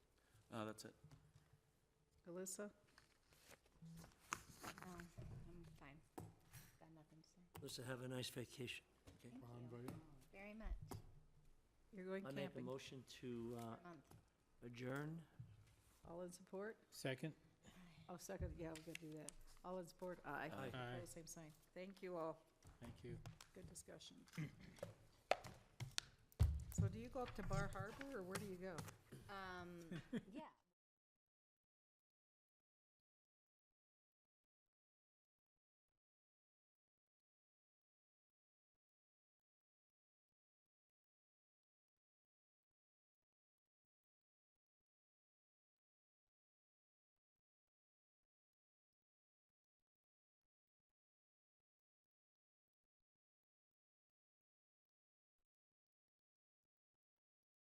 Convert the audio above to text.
Uh, that's it. Alyssa? No, Oh, I'm fine. Got nothing to say. Listen, have a nice vacation. Thank Ron, you vote. very much. You're going I make a camping. motion to uh, Month. adjourn. All in support? Second? Oh, second, yeah, we're gonna do that. All in support? Aye. Aye. Aye. Opposed, Same sign. Thank you all. Thank you. Good discussion. So do you go up to Bar Harbor, or where do you go? Um, yeah,